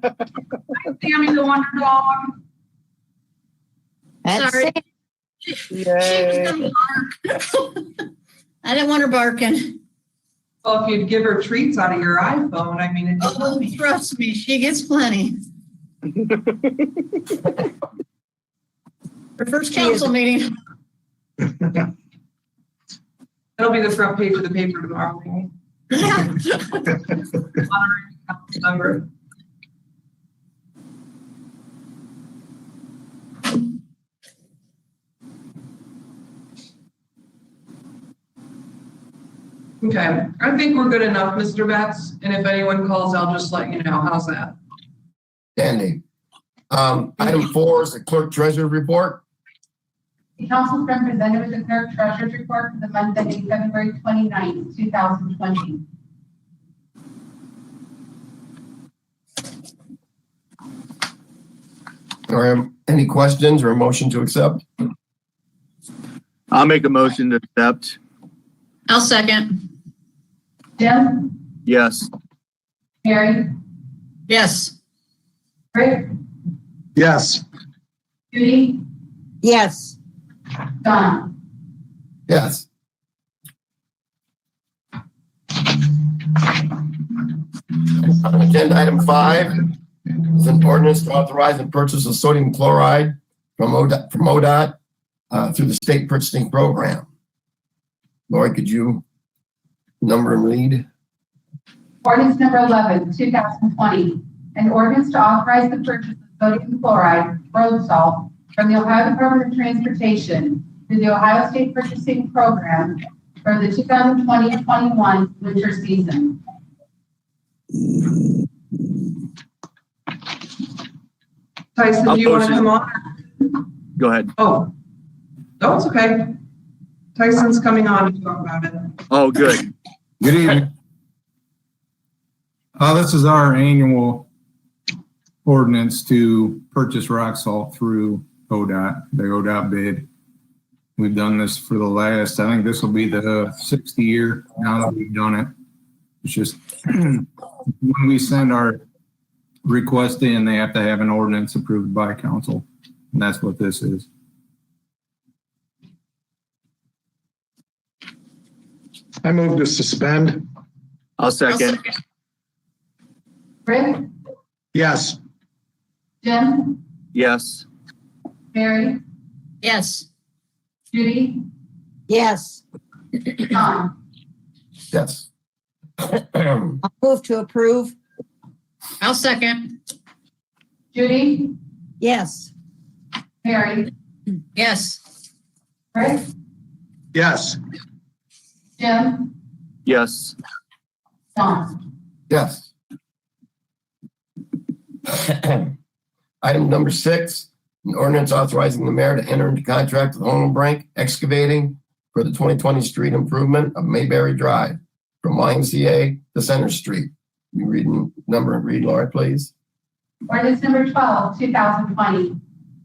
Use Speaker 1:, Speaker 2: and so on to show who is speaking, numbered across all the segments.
Speaker 1: Sam is the wonder dog.
Speaker 2: That's
Speaker 3: Sorry.
Speaker 2: it.
Speaker 3: She was
Speaker 4: Yay.
Speaker 3: gonna bark. I didn't want her barking.
Speaker 1: Well, if you'd give her treats out of your iPhone, I mean, it's
Speaker 3: Oh, trust me, she gets plenty. Her first council meeting.
Speaker 1: it'll be the front page of the paper tomorrow. right? Honoring council member. Okay, I think we're good enough, Mr. Betts, and if anyone calls, I'll just let you know. How's that?
Speaker 5: Standing. Um, item four is the clerk treasurer report.
Speaker 6: The council's representative the clerk treasurer's report for the month ending February 29th, 2020.
Speaker 5: Or any questions or a motion to accept?
Speaker 4: I'll make a motion to accept.
Speaker 3: I'll second.
Speaker 6: Jim,
Speaker 4: Yes.
Speaker 6: Mary,
Speaker 3: Yes.
Speaker 6: Rick,
Speaker 7: yes,
Speaker 6: Judy,
Speaker 2: Yes.
Speaker 6: Don.
Speaker 5: Yes. Agenda item five is an ordinance to authorize the purchase of sodium chloride from ODOT, from ODOT, uh, through the state purchasing program. Lori, could you number and read?
Speaker 6: Ordinance number 11, 2020. An ordinance to authorize the purchase of sodium chloride, road salt, from the Ohio Department of Transportation through the Ohio State Purchasing Program for the 2020-21 winter season.
Speaker 1: Tyson, do you want to come on?
Speaker 4: Go ahead.
Speaker 1: Oh, no, it's okay. Tyson's coming on to talk about it.
Speaker 4: Oh, good.
Speaker 7: good evening. Uh, this is our annual ordinance to purchase rock salt through ODOT, the ODOT bid. We've done this for the last, I think this will be the sixth year now that we've done it. It's just when we send our request in, they have to have an ordinance approved by council. And that's what this is.
Speaker 8: I move to suspend.
Speaker 4: I'll
Speaker 3: I'll
Speaker 4: second.
Speaker 6: Rick,
Speaker 8: Yes.
Speaker 6: Jim,
Speaker 4: Yes.
Speaker 6: Mary,
Speaker 3: Yes.
Speaker 6: Judy,
Speaker 2: Yes.
Speaker 6: Don.
Speaker 5: Yes. Um,
Speaker 2: I'll move to approve.
Speaker 3: I'll second.
Speaker 6: Judy,
Speaker 2: Yes.
Speaker 6: Mary,
Speaker 3: Yes.
Speaker 6: Rick,
Speaker 8: Yes.
Speaker 6: Jim,
Speaker 4: Yes.
Speaker 6: Don.
Speaker 5: Yes. Item number six, an ordinance authorizing the mayor to enter into contract with Holmbrink Excavating for the 2020 street improvement of Mayberry Drive from YMCA to Center Street. You read n- number and read, Laura, please.
Speaker 6: Ordinance number 12, 2020.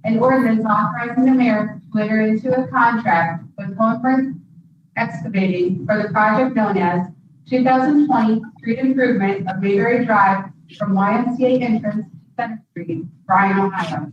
Speaker 6: An ordinance authorizing the mayor to enter into a contract with Holmberg Excavating for the project known as 2020 Street Improvement of Mayberry Drive from YMCA entrance to Center Street, Bryan, Ohio.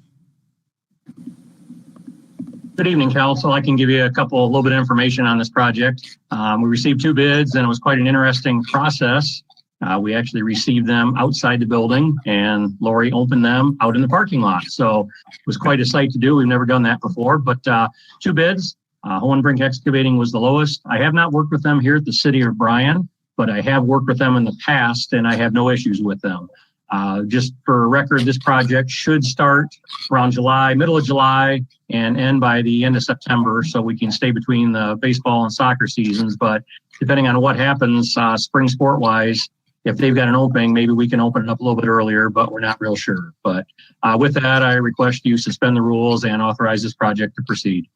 Speaker 9: Good evening, council. I can give you a couple, a little bit of information on this project. Um, we received two bids and it was quite an interesting process. Uh, we actually received them outside the building and Lori opened them out in the parking lot. So it was quite a sight to do. We've never done that before, but, uh, two bids. Uh, Hohenbrink Excavating was the lowest. I have not worked with them here at the city of Bryan, but I have worked with them in the past and I have no issues with them. Uh, just for record, this project should start around July, middle of July and end by the end of September, so we can stay between the baseball and soccer seasons. But depending on what happens, uh, spring sport wise, if they've got an opening, maybe we can open it up a little bit earlier, but we're not real sure. But uh, with that, I request you suspend the rules and authorize this project to proceed.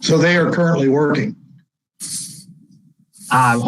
Speaker 8: So they are currently working.
Speaker 9: Uh,